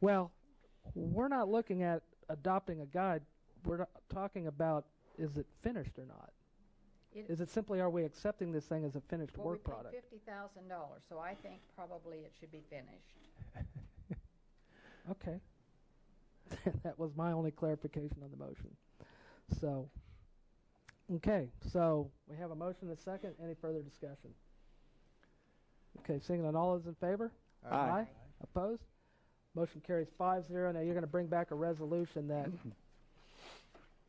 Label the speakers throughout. Speaker 1: Well, we're not looking at adopting a guide. We're not talking about is it finished or not?
Speaker 2: It-
Speaker 1: Is it simply are we accepting this thing as a finished
Speaker 2: Well, we
Speaker 1: work
Speaker 2: paid
Speaker 1: product?
Speaker 2: fifty thousand dollars, so I think probably it should be finished.
Speaker 1: Okay. that was my only clarification on the motion. So, okay, so we have a motion and a second. Any further discussion? Okay, seeing none, all those in favor?
Speaker 3: Aye.
Speaker 1: Opposed? Motion carries five zero. Now you're going to bring back a resolution that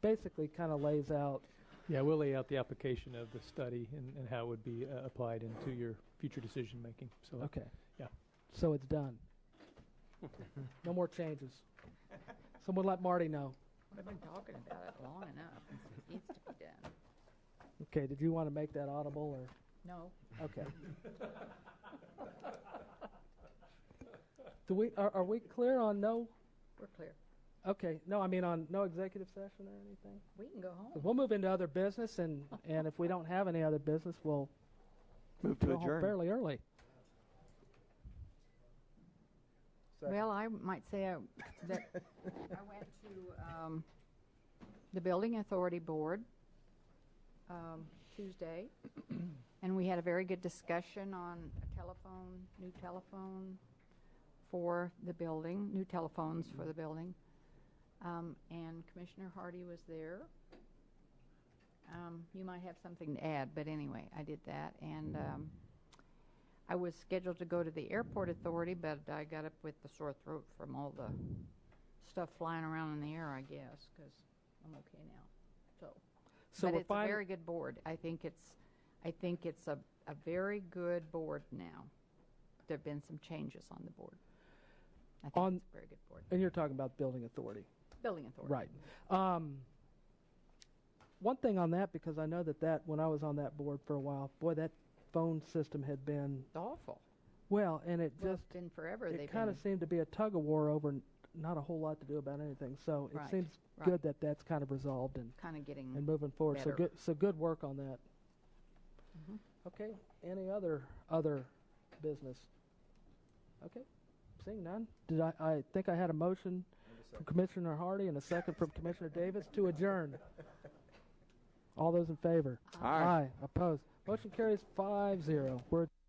Speaker 1: basically kind of lays out,
Speaker 4: Yeah, we'll lay out the application of the study and, and how it would be uh, applied into your future decision-making, so.
Speaker 1: okay.
Speaker 4: Yeah.
Speaker 1: So it's done. No more changes. Someone let Marty know.
Speaker 2: We've been talking about it long enough. It needs to be done.
Speaker 1: Okay, did you want to make that audible or?
Speaker 2: No,
Speaker 1: Okay. Do we, are, are we clear on no,
Speaker 2: we're clear.
Speaker 1: okay, no, I mean on no executive session or anything?
Speaker 2: We can go
Speaker 1: 'Cause
Speaker 2: home.
Speaker 1: We'll move into other business and, and if we don't have any other business, we'll
Speaker 3: Move to
Speaker 1: go home
Speaker 3: adjourn.
Speaker 1: fairly early.
Speaker 2: Well, I might say I- that I went to um, the Building Authority Board um, Tuesday, and we had a very good discussion on a telephone, new telephone for the building, new telephones for the building. Um, And Commissioner Hardy was there. Um, You might have something to add, but anyway, I did that. And um, I was scheduled to go to the airport authority, but I got up with the sore throat from all the stuff flying around in the air, I guess, because I'm okay now. So,
Speaker 1: So
Speaker 2: but
Speaker 1: we're
Speaker 2: it's a
Speaker 1: fine,
Speaker 2: very good board. I think it's, I think it's a, a very good board now. There've been some changes on the board. I think
Speaker 1: On-
Speaker 2: it's a very good board.
Speaker 1: and you're talking about building authority.
Speaker 2: Building authority.
Speaker 1: Right. Um, one thing on that, because I know that that, when I was on that board for a while, boy, that phone system had been,
Speaker 2: It's awful.
Speaker 1: well, and it
Speaker 2: Well,
Speaker 1: just,
Speaker 2: it's been forever. They've
Speaker 1: it kind
Speaker 2: been,
Speaker 1: of seemed to be a tug of war over n- not a whole lot to do about anything. So it
Speaker 2: Right,
Speaker 1: seems
Speaker 2: right.
Speaker 1: good that that's kind of resolved and,
Speaker 2: kind of getting.
Speaker 1: and moving forward. So
Speaker 2: Better.
Speaker 1: good, so good work on that.
Speaker 2: Mhm.
Speaker 1: Okay. Any other other business? Okay. Seeing none, did I? I think I had a motion from Commissioner Hardy and a second from Commissioner Davis to adjourn. All those in favor?
Speaker 3: Aye.
Speaker 1: Opposed. Motion carries five zero. We're